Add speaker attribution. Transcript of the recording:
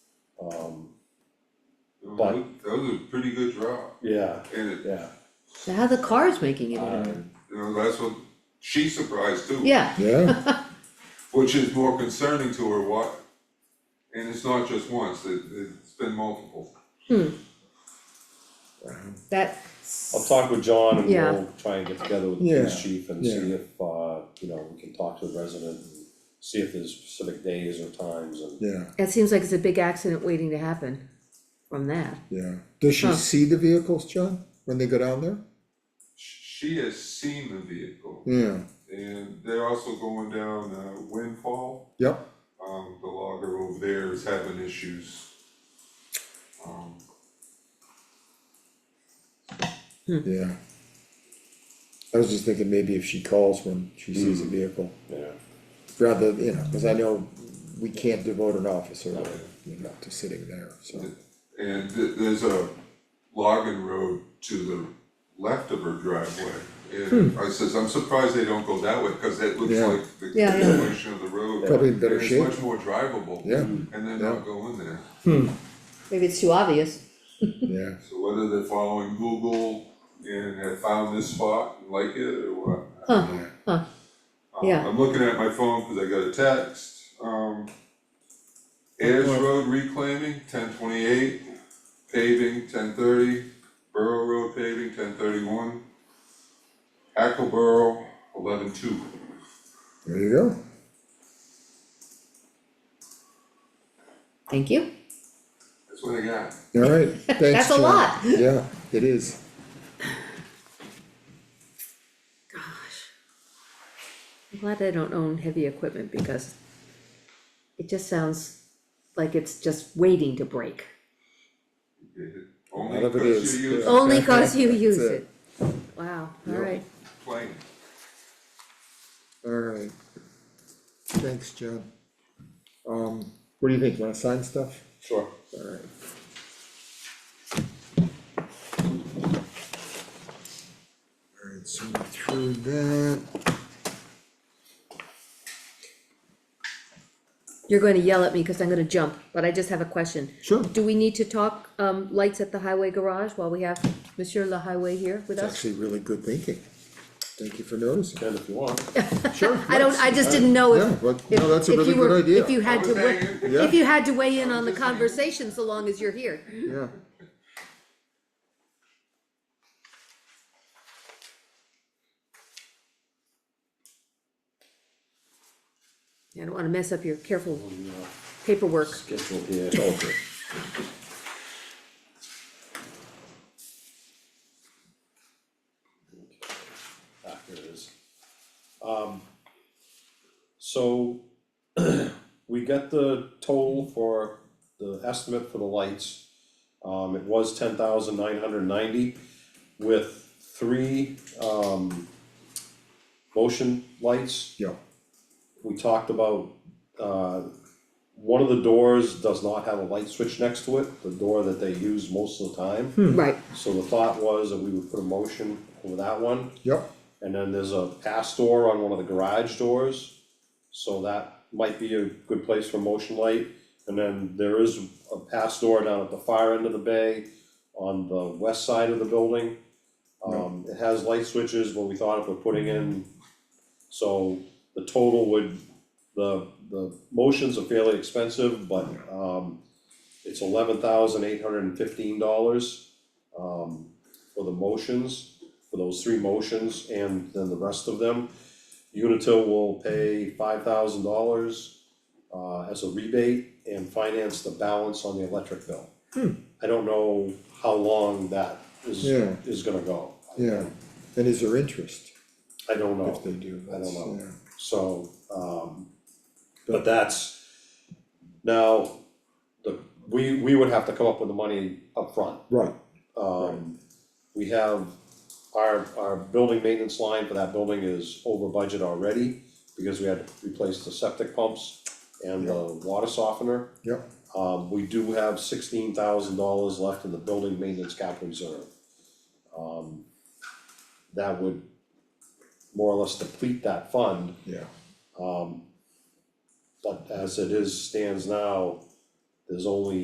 Speaker 1: Um, But-
Speaker 2: That was a pretty good job,
Speaker 1: yeah,
Speaker 2: and it,
Speaker 1: yeah,
Speaker 3: So how the car's making it
Speaker 1: Uh,
Speaker 3: in,
Speaker 2: you know, that's what she's surprised too.
Speaker 3: yeah,
Speaker 4: Yeah,
Speaker 2: Which is more concerning to her, why, and it's not just once, it, it's been multiple.
Speaker 3: that,
Speaker 1: I'll talk with John and
Speaker 3: Yeah.
Speaker 1: we'll try and get together with the police
Speaker 4: Yeah,
Speaker 1: chief and
Speaker 4: yeah.
Speaker 1: see if, uh, you know, we can talk to the resident. and See if there's specific days or times and,
Speaker 4: yeah,
Speaker 3: it seems like it's a big accident waiting to happen from that.
Speaker 4: yeah. Does she
Speaker 3: Huh.
Speaker 4: see the vehicles, John, when they go down there?
Speaker 2: She has seen the vehicle,
Speaker 4: Yeah,
Speaker 2: and they're also going down uh, Windfall,
Speaker 4: yep,
Speaker 2: um, the logger over there is having issues. Um,
Speaker 4: yeah. I was just thinking maybe if she calls when she sees a
Speaker 3: Mm.
Speaker 4: vehicle,
Speaker 1: yeah.
Speaker 4: rather, you know, cause I know we can't devote an officer, you know, to sitting there, so.
Speaker 2: And th- there's a logging road to the left of her driveway. And I says, I'm surprised they don't go that way, cause that looks
Speaker 4: Hmm. Yeah.
Speaker 2: like the
Speaker 3: Yeah, yeah.
Speaker 2: continuation of the road.
Speaker 4: Probably in better
Speaker 2: And
Speaker 4: shape.
Speaker 2: it's much more drivable.
Speaker 4: Yeah.
Speaker 3: Mm.
Speaker 2: And then
Speaker 4: Yeah.
Speaker 2: not go in there.
Speaker 3: Maybe it's too obvious,
Speaker 4: Yeah,
Speaker 2: So whether they're following Google and have found this spot and like it or what, I
Speaker 3: Huh,
Speaker 2: don't know.
Speaker 3: huh.
Speaker 2: Um,
Speaker 3: Yeah.
Speaker 2: I'm looking at my phone, cause I got a text, um. Ayers Road reclaiming, ten twenty-eight, paving, ten thirty, Borough Road paving, ten thirty-one. Hackleboro, eleven-two,
Speaker 4: there you go.
Speaker 3: thank you,
Speaker 2: that's what I got.
Speaker 4: All right, thanks,
Speaker 3: That's a
Speaker 4: John.
Speaker 3: lot.
Speaker 4: Yeah, it is.
Speaker 3: I'm glad I don't own heavy equipment because it just sounds like it's just waiting to break,
Speaker 2: Only
Speaker 4: None of it
Speaker 2: because
Speaker 4: is,
Speaker 2: you use
Speaker 4: yeah.
Speaker 3: only cause you use
Speaker 4: That's
Speaker 3: it.
Speaker 4: it.
Speaker 3: Wow,
Speaker 2: Yeah.
Speaker 3: alright,
Speaker 2: plane.
Speaker 4: All right. Thanks, John. Um, what do you think, you wanna sign stuff?
Speaker 1: Sure.
Speaker 4: All right. All right, so we're through that,
Speaker 3: you're gonna yell at me, cause I'm gonna jump, but I just have a question.
Speaker 4: sure,
Speaker 3: Do we need to talk, um, lights at the highway garage while we have Monsieur La Highway here with
Speaker 4: it's
Speaker 3: us?
Speaker 4: actually really good thinking. Thank you for noticing.
Speaker 1: Ted, if you want.
Speaker 4: Sure.
Speaker 3: I don't, I just didn't know
Speaker 4: Yeah,
Speaker 3: if,
Speaker 4: but-
Speaker 3: if,
Speaker 4: no, that's a
Speaker 3: if
Speaker 4: really
Speaker 3: you were,
Speaker 4: good idea.
Speaker 3: if you had to weigh,
Speaker 4: Yeah.
Speaker 3: if you had to weigh in on the conversation, so long as you're here.
Speaker 4: Yeah.
Speaker 3: I don't wanna mess up your careful paperwork.
Speaker 1: Schedule here. Ah, here it is. Um, so we got the total for the estimate for the lights. Um, it was ten thousand nine hundred ninety with three, um, motion lights.
Speaker 4: Yeah,
Speaker 1: We talked about, uh, one of the doors does not have a light switch next to it, the door that they use most of the time.
Speaker 3: Right,
Speaker 1: So the thought was that we would put a motion over that one.
Speaker 4: yep,
Speaker 1: And then there's a pass door on one of the garage doors, so that might be a good place for motion light. And then there is a pass door down at the far end of the bay on the west side of the building. Um, it has light switches, but we thought if we're putting in, so the total would, the, the motions are fairly expensive, but, um, it's eleven thousand eight hundred and fifteen dollars, um, for the motions for those three motions and then the rest of them. Unitil will pay five thousand dollars uh, as a rebate and finance the balance on the electric bill. I don't know how long that is
Speaker 4: Yeah.
Speaker 1: is gonna go.
Speaker 4: yeah. And is there interest
Speaker 1: I don't know.
Speaker 4: if they do?
Speaker 1: I don't know.
Speaker 4: Yeah.
Speaker 1: So, um, but that's, now, the, we, we would have to come up with the money up front.
Speaker 4: Right,
Speaker 1: Um, we have, our, our building maintenance line for that building is over budget already, because we had to replace the septic pumps and the water softener.
Speaker 4: yep,
Speaker 1: Um, we do have sixteen thousand dollars left in the building maintenance capital reserve. Um, that would more or less deplete that fund,
Speaker 4: yeah,
Speaker 1: um, but as it is, stands now, there's only